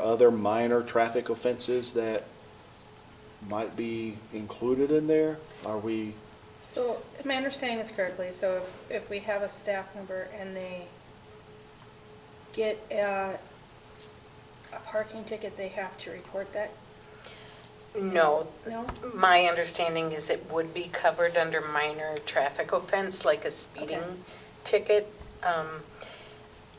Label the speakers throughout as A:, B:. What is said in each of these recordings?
A: other minor traffic offenses that might be included in there? Are we,
B: So, if my understanding is correctly, so if, if we have a staff member and they get a, a parking ticket, they have to report that,
C: No,
B: no?
C: my understanding is it would be covered under minor traffic offense, like a
B: Okay.
C: speeding ticket. Um,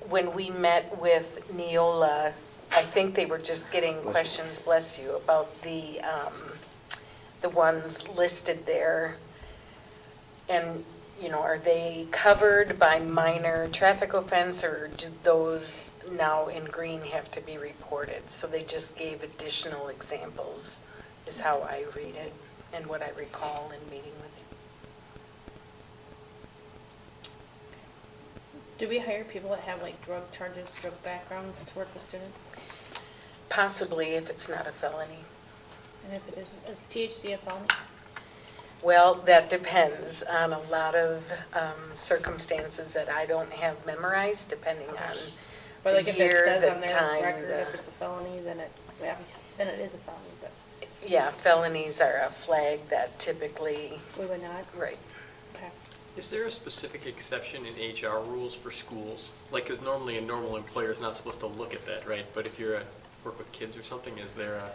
C: When we met with Neola, I think they were just getting
A: you.
C: questions, bless you, about the, um, the ones listed there. And, you know, are they covered by minor traffic offense, or do those now in green have to be reported? So they just gave additional examples, is how I read it, and what I recall in meeting with you.
B: Do we hire people that have like drug charges, drug backgrounds to work with students?
C: Possibly if it's not a felony.
B: And if it is, is THC a felony?
C: Well, that depends on a lot of um, circumstances that I don't have memorized, depending on
B: Or like
C: the
B: if it
C: year,
B: says
C: the
B: on
C: time,
B: their record,
C: the-
B: if it's a felony, then it, yeah, then it is a felony, but
C: Yeah, felonies are a flag that typically,
B: we would not,
C: right.
B: okay.
D: Is there a specific exception in HR rules for schools? Like, because normally a normal employer is not supposed to look at that, right? But if you're a, work with kids or something, is there a?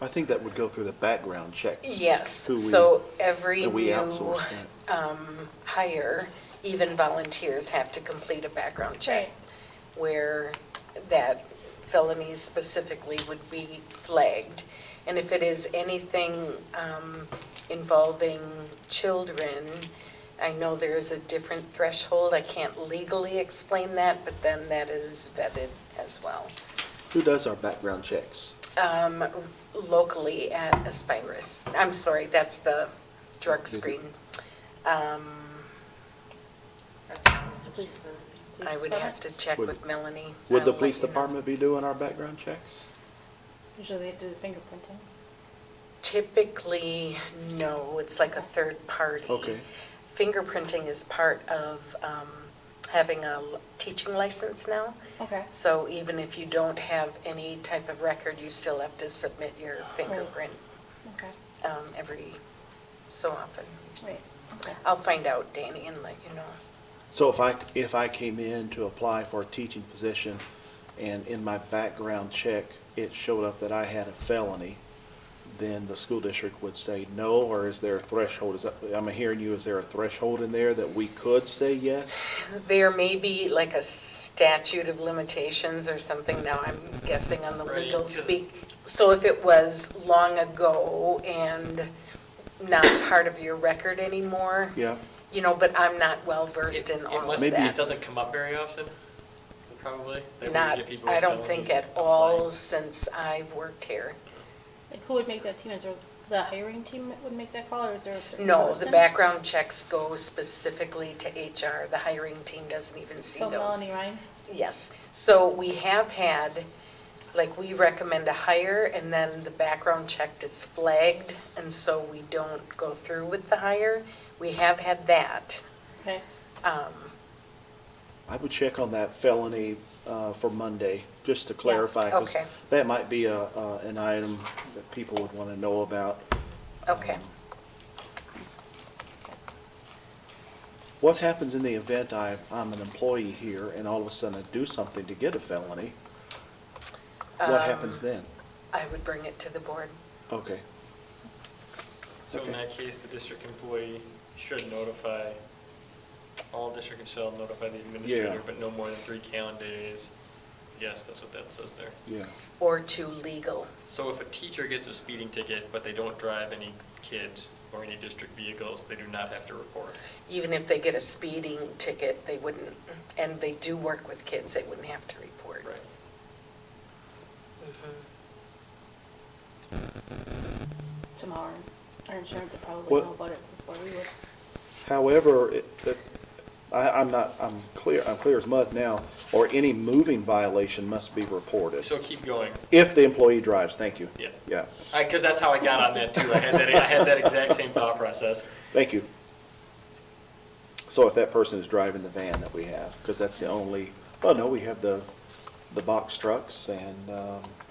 A: I think that would go through the background check.
C: Yes,
A: Who we-
C: so every
A: that we
C: new
A: outsource that.
C: um, hire, even volunteers have to complete a background check.
B: Right.
C: Where that felony specifically would be flagged. And if it is anything um, involving children, I know there is a different threshold. I can't legally explain that, but then that is vetted as well.
A: Who does our background checks?
C: um, locally at Aspirus. I'm sorry, that's the drug
A: Is it-
C: screen. Um,
B: Police- police
C: I would
B: department?
C: have to check
A: Would-
C: with Melanie. Um,
A: Would
C: I'll
A: the
C: let
A: police
C: you know.
A: department be doing our background checks?
B: Usually they do the fingerprinting.
C: Typically, no, it's like a third party.
A: Okay.
C: Fingerprinting is part of um, having a l- teaching license now.
B: Okay.
C: So even if you don't have any type of record, you still have to submit your fingerprint
B: Okay,
C: um, every so often.
B: wait, okay.
C: I'll find out, Danny, and let you know.
A: So if I, if I came in to apply for a teaching position and in my background check, it showed up that I had a felony, then the school district would say no, or is there a threshold? Is that, I'm hearing you, is there a threshold in there that we could say yes?
C: There may be like a statute of limitations or something now, I'm guessing on the
D: Right,
C: legal
D: because-
C: speak. So if it was long ago and not part of your record anymore,
A: Yeah,
C: you know, but I'm not well versed in
D: It- it
C: all of
D: must-
A: Maybe
C: that.
D: It doesn't come up very often, probably. that we
C: Not,
D: get people
C: I
D: with
C: don't think
D: felonies
C: at all
D: applying.
C: since I've worked here.
B: Like who would make that team? Is there the hiring team that would make that call or is there a certain
C: No, the
B: person?
C: background checks go specifically to HR, the hiring team doesn't even see
B: So
C: those.
B: Melanie Ryan?
C: Yes, so we have had, like, we recommend a hire, and then the background check is flagged, and so we don't go through with the hire. We have had that.
B: Okay,
C: Um,
A: I would check on that felony uh, for Monday, just to clarify. 'cause
C: okay.
A: That might be a, uh, an item that people would want to know about.
C: Okay,
A: What happens in the event I, I'm an employee here and all of a sudden I do something to get a felony? What happens then?
C: I would bring it to the board.
A: Okay,
D: So in
A: Okay.
D: that case, the district employee should notify, all district shall notify the
A: Yeah.
D: administrator, but no more than three calendar days. Yes, that's what that says there.
A: yeah.
C: Or to legal.
D: So if a teacher gets a speeding ticket, but they don't drive any kids or any district vehicles, they do not have to report.
C: Even if they get a speeding ticket, they wouldn't, and they do work with kids, they wouldn't have to report.
D: Right.
C: Mhm.
B: tomorrow. Our insurance would probably
A: What-
B: know about it before we would.
A: However, it- it- I, I'm not, I'm clear, I'm clear as mud now, or any moving violation must be reported.
D: So keep going.
A: If the employee drives, thank you.
D: Yeah.
A: Yeah,
D: Because that's how I got on that too. I had that, I had that exact same thought process.
A: thank you. So if that person is driving the van that we have, because that's the only, oh no, we have the, the box trucks and, um,